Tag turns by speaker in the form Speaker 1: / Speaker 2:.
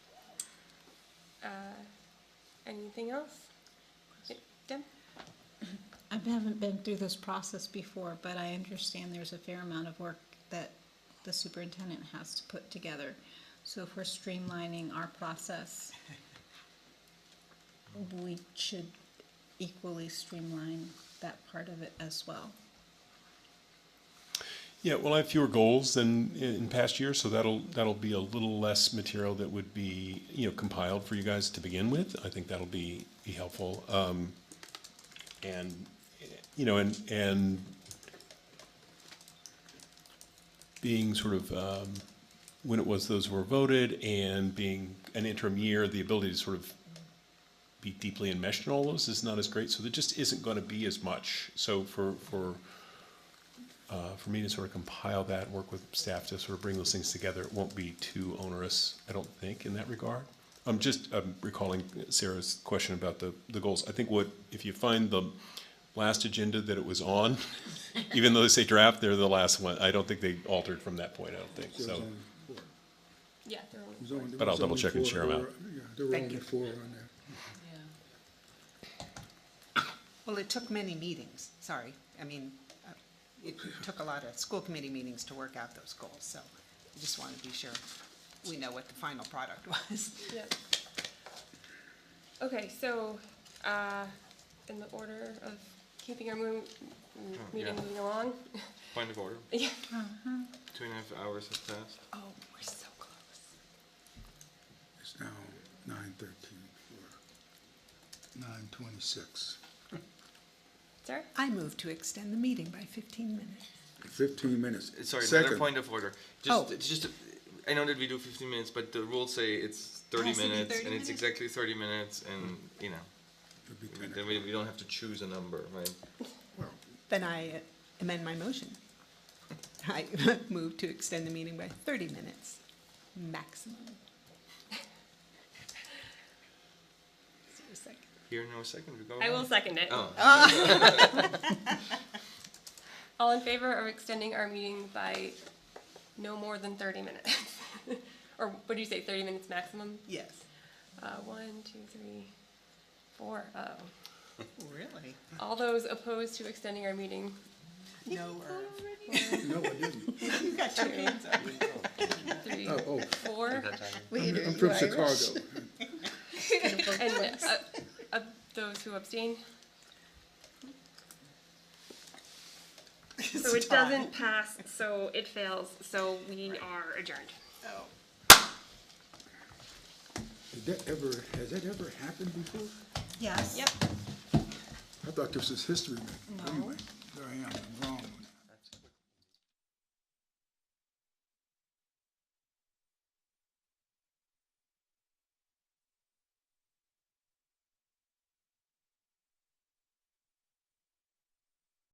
Speaker 1: Uh, Anything else? Yeah, Deb?
Speaker 2: I haven't been through this process before, but I understand there's a fair amount of work that the superintendent has to put together. So if we're streamlining our process, we should equally streamline that part of it as well.
Speaker 3: Yeah, well, I have fewer goals than in, in past years, so that'll that'll be a little less material that would be you know compiled for you guys to begin with. I think that'll be be helpful. Um, and you know, and and being sort of um, when it was those were voted, and being an interim year, the ability to sort of be deeply enmeshed in all those is not as great. So there just isn't going to be as much. So for for uh, for me to sort of compile that, work with staff to sort of bring those things together, it won't be too onerous, I don't think, in that regard. I'm just um, recalling Sarah's question about the, the goals. I think what, if you find the last agenda that it was on, even though they say draft, they're the last one, I don't think they altered from that point, I don't think, so.
Speaker 1: Yeah, they're only-
Speaker 4: There's only-
Speaker 3: But I'll
Speaker 4: there's only
Speaker 3: double-check and
Speaker 4: four-
Speaker 3: share 'em out.
Speaker 4: there were- yeah, There were only four on there.
Speaker 5: Well, it took many meetings, sorry. I mean, uh, it took a lot of school committee meetings to work out those goals, so I just want to be sure we know what the final product was.
Speaker 1: Yep. Okay, so, uh, in the order of keeping our mo- m- meeting moving along,
Speaker 6: Point of order.
Speaker 1: Yeah.
Speaker 6: Two and a half hours have passed.
Speaker 5: Oh, we're so close.
Speaker 4: It's now nine thirteen nine twenty-six.
Speaker 1: Sarah?
Speaker 5: I move to extend the meeting by fifteen minutes.
Speaker 4: Fifteen minutes.
Speaker 6: Sorry, another
Speaker 4: Second.
Speaker 6: point of order.
Speaker 5: Oh.
Speaker 6: Just, it's just, I know that we do 15 minutes, but the rules say it's 30
Speaker 5: Has to be
Speaker 6: minutes,
Speaker 5: 30
Speaker 6: and it's
Speaker 5: minutes?
Speaker 6: exactly 30 minutes, and you know,
Speaker 4: It'd be
Speaker 6: we-
Speaker 4: ten
Speaker 6: then we, we don't have to choose a number, right?
Speaker 4: Well,
Speaker 5: Then I uh, amend my motion. I move to extend the meeting by thirty minutes, maximum. Is there a second?
Speaker 6: Here, no second. We go.
Speaker 1: I will
Speaker 6: around.
Speaker 1: second it.
Speaker 6: Oh,
Speaker 1: All in favor of extending our meeting by no more than thirty minutes? Or what do you say, thirty minutes maximum?
Speaker 5: Yes.
Speaker 1: Uh, one, two, three, four. Uh-oh.
Speaker 5: Really?
Speaker 1: All those opposed to extending our meeting?
Speaker 5: No,
Speaker 4: No, I didn't.
Speaker 5: you got your hands up.
Speaker 1: Three,
Speaker 4: Oh, oh,
Speaker 1: four,
Speaker 4: I'm- I'm from Chicago.
Speaker 1: and uh, of those who abstain? So it doesn't pass, so it fails, so we are adjourned.
Speaker 4: Did that ever, has that ever happened before?
Speaker 2: Yes.
Speaker 4: I thought this was history, but anyway, there I am. I'm